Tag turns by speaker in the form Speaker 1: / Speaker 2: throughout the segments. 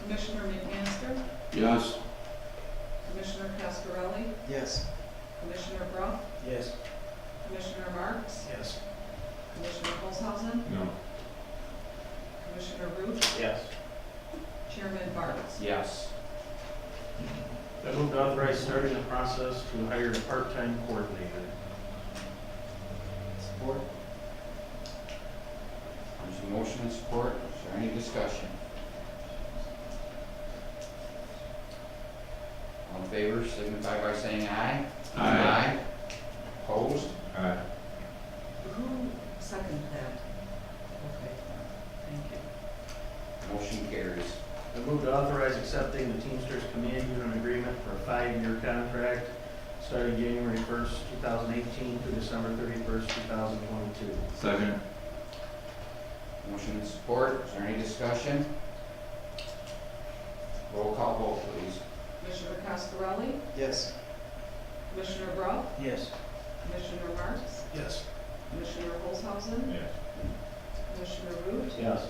Speaker 1: Commissioner McMaster,
Speaker 2: Yes.
Speaker 1: Commissioner Cascarelli,
Speaker 3: Yes.
Speaker 1: Commissioner Brock,
Speaker 3: Yes.
Speaker 1: Commissioner Marks,
Speaker 3: Yes.
Speaker 1: Commissioner Olshausen,
Speaker 2: No.
Speaker 1: Commissioner Root,
Speaker 3: Yes.
Speaker 1: Chairman Barnes.
Speaker 2: Yes.
Speaker 3: I move to authorize starting the process to hire a part-time coordinator. Support?
Speaker 2: There's a motion and support. Is there any discussion? All in favor, signify by saying aye. Aye. Opposed? Aye.
Speaker 1: Who seconded that? Okay, thank you.
Speaker 2: Motion carries.
Speaker 3: I move to authorize accepting the Teamsters Command Unit Agreement for a five-year contract starting January first, two thousand eighteen through December thirty-first, two thousand twenty-two.
Speaker 4: Second.
Speaker 2: Motion and support. Is there any discussion? Roll call vote, please.
Speaker 1: Commissioner Cascarelli,
Speaker 3: Yes.
Speaker 1: Commissioner Brock,
Speaker 3: Yes.
Speaker 1: Commissioner Marks,
Speaker 3: Yes.
Speaker 1: Commissioner Olshausen,
Speaker 4: Yes.
Speaker 1: Commissioner Root,
Speaker 3: Yes.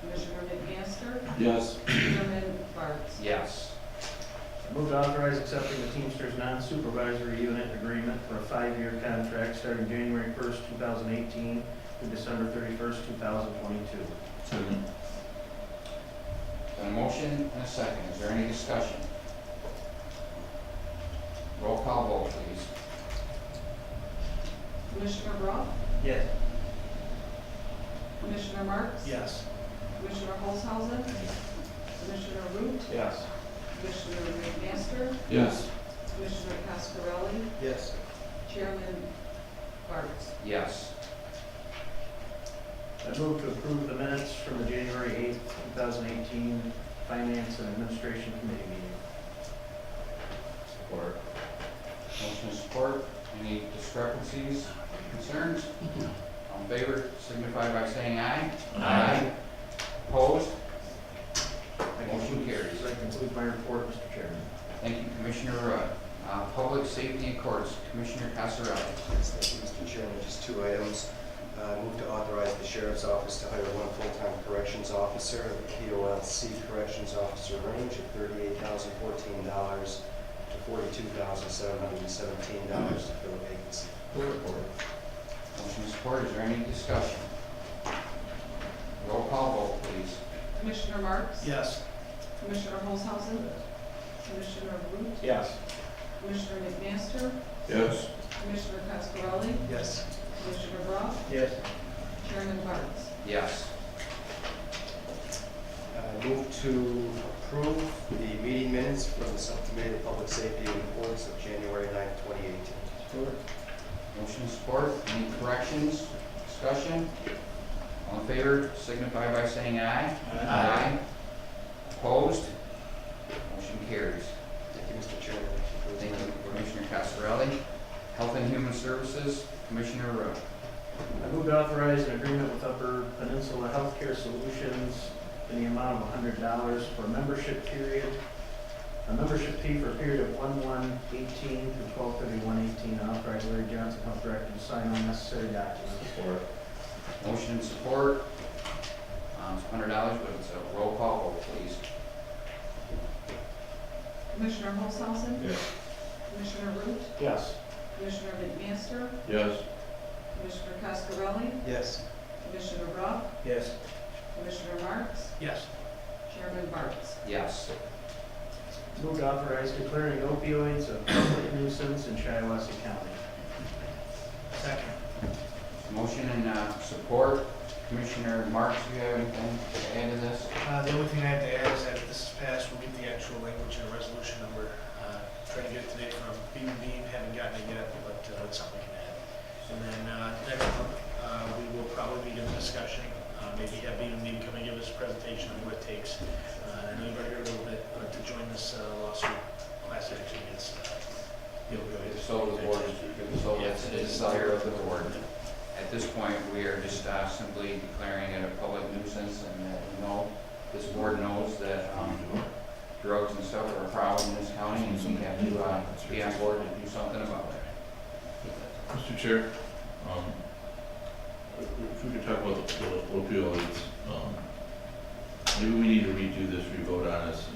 Speaker 1: Commissioner McMaster,
Speaker 4: Yes.
Speaker 1: Chairman Barnes.
Speaker 2: Yes.
Speaker 3: I move to authorize accepting the Teamsters Non-Supervisory Unit Agreement for a five-year contract starting January first, two thousand eighteen through December thirty-first, two thousand twenty-two.
Speaker 4: Second.
Speaker 2: Got a motion and a second. Is there any discussion? Roll call vote, please.
Speaker 1: Commissioner Brock,
Speaker 3: Yes.
Speaker 1: Commissioner Marks.
Speaker 3: Yes.
Speaker 1: Commissioner Holzhausen, Commissioner Root,
Speaker 3: Yes.
Speaker 1: Commissioner McMaster,
Speaker 4: Yes.
Speaker 1: Commissioner Cascarelli,
Speaker 3: Yes.
Speaker 1: Chairman Barnes.
Speaker 2: Yes.
Speaker 3: I move to approve the minutes from the January eighth, two thousand eighteen Finance and Administration Committee meeting.
Speaker 2: Support. Motion is support. Any discrepancies, concerns? All in favor, signify by saying aye. Opposed? Motion carries.
Speaker 3: That concludes my report, Mr. Chairman.
Speaker 2: Thank you, Commissioner Rudd. Uh, Public Safety and Courts, Commissioner Casarelli.
Speaker 5: Yes, thank you, Mr. Chairman. Just two items. Uh, Move to authorize the sheriff's office to hire one full-time corrections officer, POLC corrections officer range of $38,014 to $42,717 to fill a vacancy.
Speaker 2: Motion is support. Is there any discussion? Roll call vote, please.
Speaker 1: Commissioner Marks.
Speaker 3: Yes.
Speaker 1: Commissioner Holzhausen, Commissioner Root,
Speaker 3: Yes.
Speaker 1: Commissioner McMaster,
Speaker 4: Yes.
Speaker 1: Commissioner Cascarelli,
Speaker 5: Yes.
Speaker 1: Commissioner Brock,
Speaker 3: Yes.
Speaker 1: Chairman Barnes.
Speaker 2: Yes.
Speaker 5: Uh, Move to approve the meeting minutes from the Subcommittee of Public Safety and Courts of January 9, 2018.
Speaker 3: Stewart?
Speaker 2: Motion is support. Any corrections, discussion? All in favor, signify by saying aye. Opposed? Motion carries.
Speaker 5: Thank you, Mr. Chairman.
Speaker 2: Thank you, Commissioner Casarelli. Health and Human Services, Commissioner Rowe.
Speaker 3: I move to authorize an agreement with Upper Peninsula Healthcare Solutions in the amount of hundred dollars for a membership period, a membership fee for a period of one-one eighteen through twelve-thirty-one eighteen, and authorize Larry Johnson, Health Director, to sign all necessary documents.
Speaker 2: Motion and support. Um, it's hundred dollars, but it's a roll call vote, please.
Speaker 1: Commissioner Holzhausen,
Speaker 4: Yes.
Speaker 1: Commissioner Root,
Speaker 3: Yes.
Speaker 1: Commissioner McMaster,
Speaker 4: Yes.
Speaker 1: Commissioner Cascarelli,
Speaker 5: Yes.
Speaker 1: Commissioner Brock,
Speaker 3: Yes.
Speaker 1: Commissioner Marks,
Speaker 3: Yes.
Speaker 1: Chairman Barnes.
Speaker 2: Yes.
Speaker 3: Move to authorize declaring opioids a public nuisance in Shiawassee County. Second.
Speaker 2: Motion and, uh, support. Commissioner Marks, do you have anything to add to this?
Speaker 6: Uh, The only thing I have to add is that if this is passed, we'll get the actual language and a resolution number. Uh, Trying to get it today from Beam and Beam, haven't gotten it yet, but uh, that's something we can add. And then uh, next month, uh, we will probably be in discussion, uh, maybe have Beam and Beam come and give us a presentation on what it takes. Uh, I know you've already heard a little bit, but to join this uh, lawsuit, class action against uh, the opioid.
Speaker 2: So the board, so that's the desire of the board. At this point, we are just uh, simply declaring it a public nuisance and that we know, this board knows that um, drugs and stuff are a problem in this county and we have to uh, be on board to do something about it.
Speaker 4: Mr. Chair, um, if we could talk about the opioids, um, maybe we need to redo this, revote on